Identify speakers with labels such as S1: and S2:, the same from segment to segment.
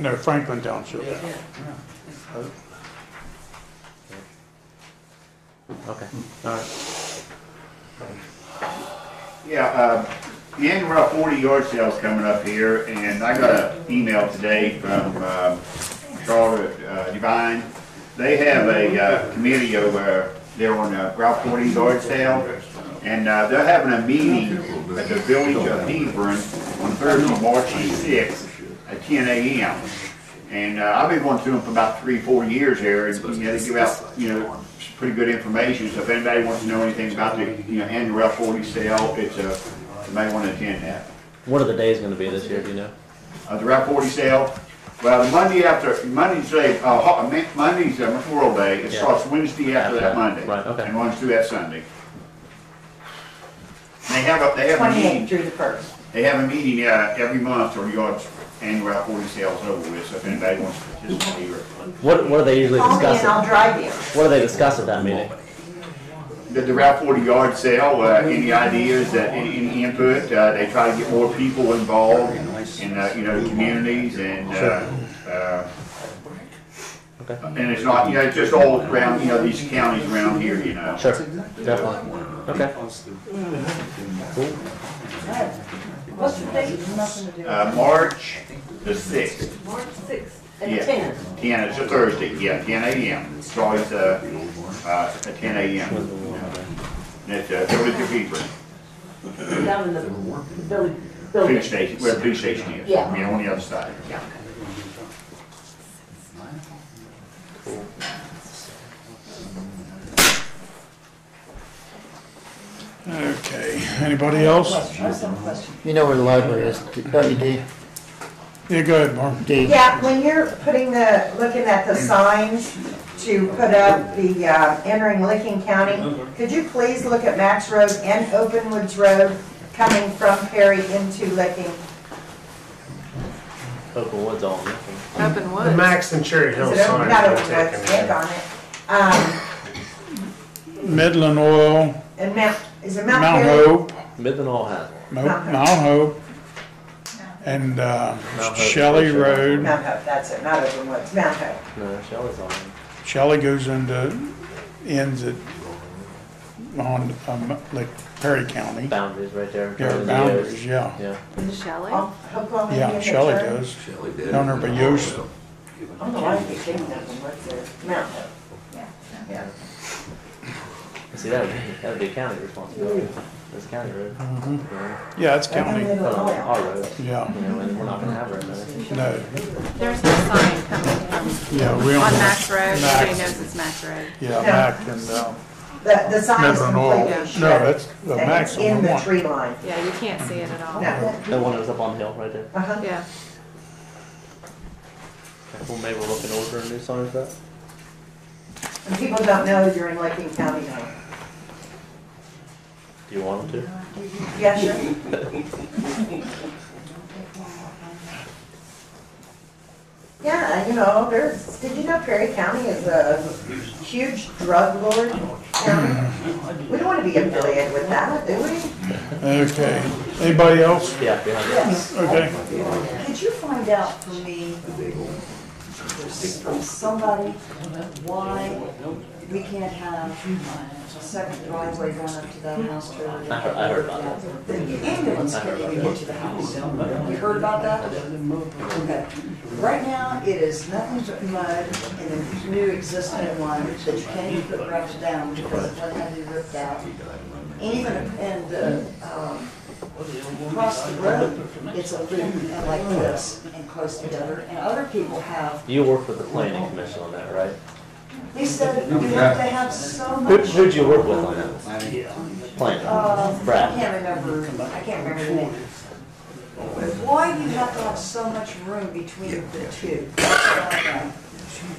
S1: No, Franklin Township.
S2: Yeah.
S3: Okay.
S1: All right.
S4: Yeah, uh, the annual Route 40 yard sale's coming up here, and I got an email today from uh, Charlotte uh, Divine. They have a uh, committee over there on uh, Route 40 yard sale, and uh, they're having a meeting at the Village of Hebron on Thursday, March 6th at 10 a.m. And uh, I've been going through them for about three, four years here, and you know, they give out, you know, pretty good information, so if anybody wants to know anything about the, you know, annual Route 40 sale, it's a, you may want to attend that.
S3: What are the days going to be this year? Do you know?
S4: Uh, the Route 40 sale, well, the Monday after, Monday's, a- uh, ho- uh, Monday's uh, Memorial Day, it
S3: Yeah.
S4: starts Wednesday after
S3: After that,
S4: that Monday.
S3: right, okay.
S4: And runs through that Sunday. And They have a, they have a meeting.
S2: Twenty-eighth through the first.
S4: They have a meeting uh, every month or yards annual Route 40 sales over with, so if anybody wants to participate or.
S3: What What are they usually
S2: Call me and I'll
S3: discussing?
S2: drive you.
S3: What do they discuss at that meeting?
S4: The the Route 40 yard sale, uh, any ideas, uh, any any input, uh, they try to get more people involved in, uh, you know, the communities and, uh, uh,
S3: Okay.
S4: and it's not, you know, it's just all around, you know, these counties around here, you know.
S3: Sure. Definitely. Okay.
S2: What's the date? Nothing to do.
S4: Uh, March the 6th,
S2: March sixth
S4: yeah.
S2: and tenth.
S4: 10, it's a Thursday, yeah, 10 a.m. It's always uh, uh, at 10 a.m. And it's uh, Village of Hebron,
S2: down in the village,
S4: police
S2: building.
S4: station, where the police station is,
S2: Yeah.
S4: yeah, on the other side. Yeah.
S1: Okay, anybody else?
S5: You know where the library is, don't you, Dee?
S1: Yeah, go ahead, Mark.
S5: Dee,
S6: Yeah, when you're putting the, looking at the signs to put up the uh, entering Licking County, could you please look at Max Road and Openwoods Road coming from Perry into Licking?
S3: Open woods on.
S7: Open
S8: The
S7: wood.
S8: Max and Cherry Hill
S6: Is it open,
S8: sign.
S6: not Openwoods, and on it. Um,
S1: Midland Oil,
S6: And Mount, is it Mount
S1: Mount
S6: Perry?
S1: Hope,
S3: Midland all has one.
S1: Mo- Mount Hope, and uh, Shelley Road.
S6: Mount Hope, that's it, not Openwoods, Mount Hope.
S3: No, Shelley's on. one.
S1: Shelley goes into, ends at, on, um, like Perry County.
S3: Boundaries right there.
S1: Yeah, boundaries, yeah.
S3: Yeah.
S7: Shelley?
S6: Oh, Oklahoma,
S1: Yeah,
S6: Indian
S1: Shelley
S6: Turn.
S1: does. Down there by Yost.
S6: I don't know why you're thinking Openwoods there, Mount Hope. Yeah.
S3: See, that would, that would be county responsibility. That's county road. Yeah.
S1: Yeah, it's
S6: And
S1: county,
S6: then
S3: But
S6: it'll
S3: on
S6: all out.
S3: our road,
S1: yeah,
S3: you know, and we're not going to have road there.
S1: no,
S7: There's no sign coming from,
S1: yeah, we
S7: on
S1: don't,
S7: Max Road, everybody
S1: Max.
S7: knows it's Max Road.
S1: yeah, Mac and, uh,
S6: The, the sign is
S1: Midland Oil.
S6: completely
S1: No,
S6: shut.
S1: that's the
S6: And it's
S1: maximum
S6: in the
S1: one.
S6: tree line.
S7: Yeah, you can't see it at all.
S6: No.
S3: The one that was up on the hill right there.
S6: Uh-huh.
S7: Yeah.
S3: Okay, Well, maybe we'll look and order a new sign for that.
S6: And people don't know you're in Licking County now.
S3: Do you want them to?
S6: Yeah, sure. Yeah, you know, there's, did you know Perry County is a huge drug lord
S1: Mm-hmm.
S6: county? We don't want to be affiliated with that, do we?
S1: Okay, anybody else?
S3: Yeah, behind you.
S2: Yes.
S1: Okay,
S2: Could you find out for me, from somebody, why we can't have a second driveway going up to that house trailer?
S3: I heard- I heard about
S2: The ambulance can't even get to the house. You heard about that? Okay. Right now, it is nothing but mud and the new existing one that you can't even put gravel down because it doesn't have to be ripped out. Even, and, uh, um, across the road, it's a loop and like this and close together. And other people have,
S3: You work with the planning commission on that, right?
S2: they said, you have to have so
S3: Who,
S2: much,
S3: who'd you work with on that? Planning.
S2: uh, I
S3: Brad.
S2: can't remember, I can't remember the name. Why do you have to have so much room between the two?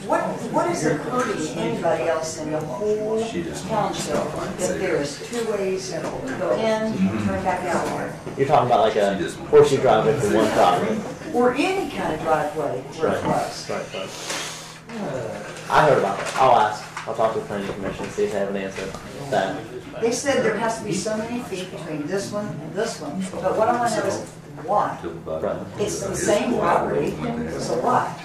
S2: What, what is it hurting anybody else in the whole township that there is two ways to go in and turn back out?
S3: You're talking about like a horseshoe drive in for one property.
S2: Or any kind of driveway where it was.
S3: Right, right. I heard about it. I'll ask. I'll talk to the planning commission, see if they have an answer. to That,
S2: They said there has to be so many feet between this one and this one, but what I want to know is, why?
S8: Right.
S2: It's the same property, so why?